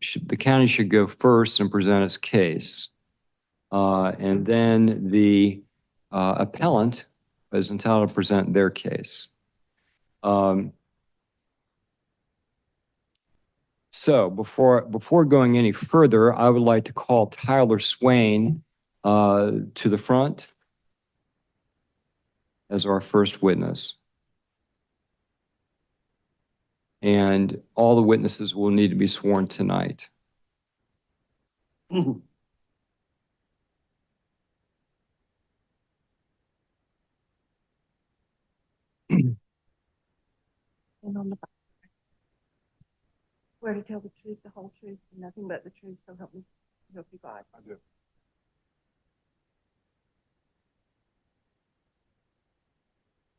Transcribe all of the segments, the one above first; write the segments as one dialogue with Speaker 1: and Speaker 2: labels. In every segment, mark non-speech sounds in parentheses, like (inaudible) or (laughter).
Speaker 1: should- the county should go first and present its case. Uh, And then the uh, appellant is entitled to present their case. Um, So before, before going any further, I would like to call Tyler Swain uh, to the front as our first witness. And all the witnesses will need to be sworn tonight.
Speaker 2: And on the back. Swear to tell the truth, the whole truth, and nothing but the truth, so help me, help you God.
Speaker 3: I do.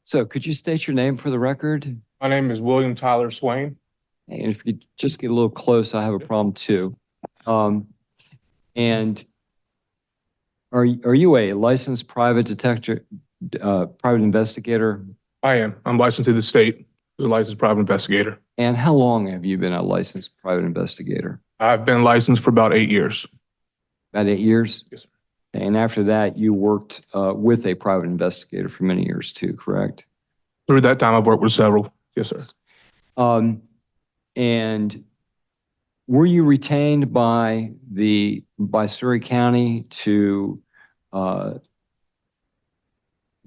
Speaker 1: So could you state your name for the record?
Speaker 3: My name is William Tyler Swain.
Speaker 1: And if you could just get a little close, I have a problem too. Um, And are, y- are you a licensed private detective, uh, private investigator?
Speaker 3: I am. I'm licensed to the state, as a licensed private investigator.
Speaker 1: And how long have you been a licensed private investigator?
Speaker 3: I've been licensed for about eight years.
Speaker 1: About eight years?
Speaker 3: Yes, sir.
Speaker 1: And after that, you worked uh, with a private investigator for many years too, correct?
Speaker 3: Through that time, I've worked with several. Yes, sir.
Speaker 1: Um, and were you retained by the, by Surrey County to, uh,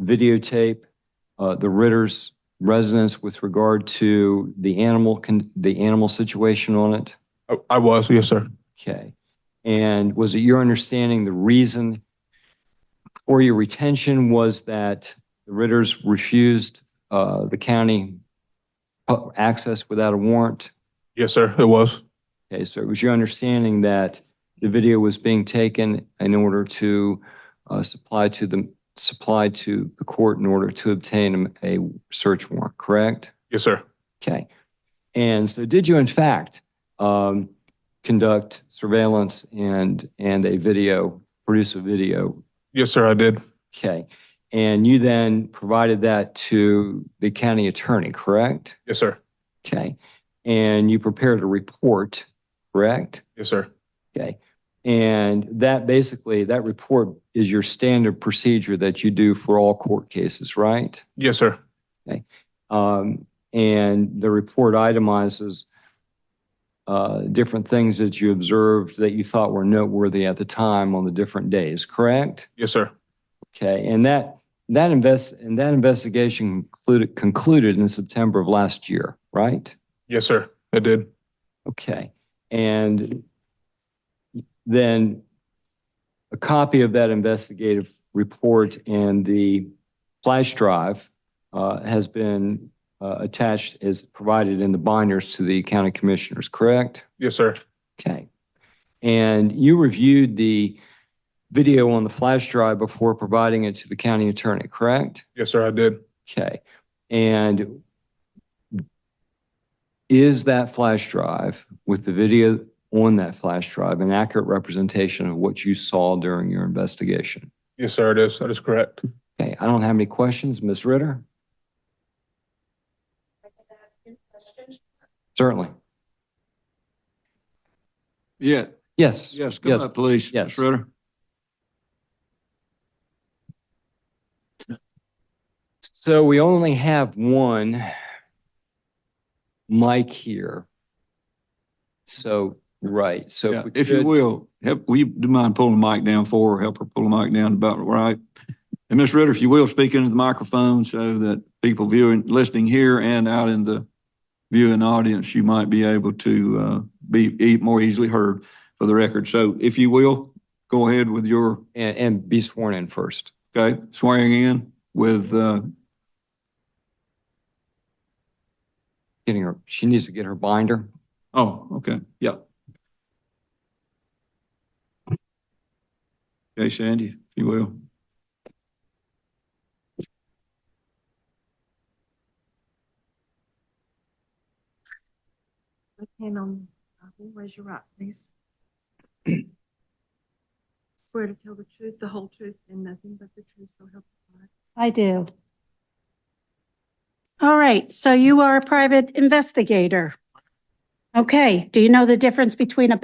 Speaker 1: videotape, uh, the Ritter's residence with regard to the animal, con- the animal situation on it?
Speaker 3: I- I was, yes, sir.
Speaker 1: Okay. And was it your understanding the reason for your retention was that the Ritters refused, uh, the county uh, access without a warrant?
Speaker 3: Yes, sir, it was.
Speaker 1: Okay, so it was your understanding that the video was being taken in order to uh, supply to the, supply to the court in order to obtain a a search warrant, correct?
Speaker 3: Yes, sir.
Speaker 1: Okay. And so did you in fact um, conduct surveillance and, and a video, produce a video?
Speaker 3: Yes, sir, I did.
Speaker 1: Okay. And you then provided that to the county attorney, correct?
Speaker 3: Yes, sir.
Speaker 1: Okay. And you prepared a report, correct?
Speaker 3: Yes, sir.
Speaker 1: Okay. And that basically, that report is your standard procedure that you do for all court cases, right?
Speaker 3: Yes, sir.
Speaker 1: Um, and the report itemizes uh, different things that you observed that you thought were noteworthy at the time on the different days, correct?
Speaker 3: Yes, sir.
Speaker 1: Okay, and that, that invest, and that investigation concluded, concluded in September of last year, right?
Speaker 3: Yes, sir. I did.
Speaker 1: Okay, and then a copy of that investigative report and the flash drive uh, has been uh, attached, is provided in the binders to the county commissioners, correct?
Speaker 3: Yes, sir.
Speaker 1: Okay. And you reviewed the video on the flash drive before providing it to the county attorney, correct?
Speaker 3: Yes, sir, I did.
Speaker 1: Okay, and is that flash drive with the video on that flash drive an accurate representation of what you saw during your investigation?
Speaker 3: Yes, sir, it is. That is correct.
Speaker 1: Okay, I don't have any questions. Ms. Ritter?
Speaker 4: I can ask you questions.
Speaker 1: Certainly.
Speaker 5: Yeah,
Speaker 1: Yes.
Speaker 5: yes, go
Speaker 1: Yes.
Speaker 5: ahead, please.
Speaker 1: Yes.
Speaker 5: Ritter.
Speaker 1: So we only have one mic here. So, right, so.
Speaker 5: Yeah,
Speaker 1: we
Speaker 5: If you
Speaker 1: could-
Speaker 5: will, help, will you do mind pulling the mic down for her, help her pull the mic down about right? And Ms. Ritter, if you will, speak into the microphone so that people viewing, listening here and out in the viewing audience, you might be able to, uh, be, e more easily heard for the record. So if you will, go ahead with your,
Speaker 1: And, and be sworn in first.
Speaker 5: okay, swearing in with, uh,
Speaker 1: Getting her, she needs to get her binder.
Speaker 5: Oh, okay, yeah. Okay, Sandy, if you will.
Speaker 2: Left hand on, the Bible, raise your right, please.
Speaker 4: (clears throat)
Speaker 2: Swear to tell the truth, the whole truth, and nothing but the truth, so help you God.
Speaker 4: I do. All right, so you are a private investigator. Okay, do you know the difference between a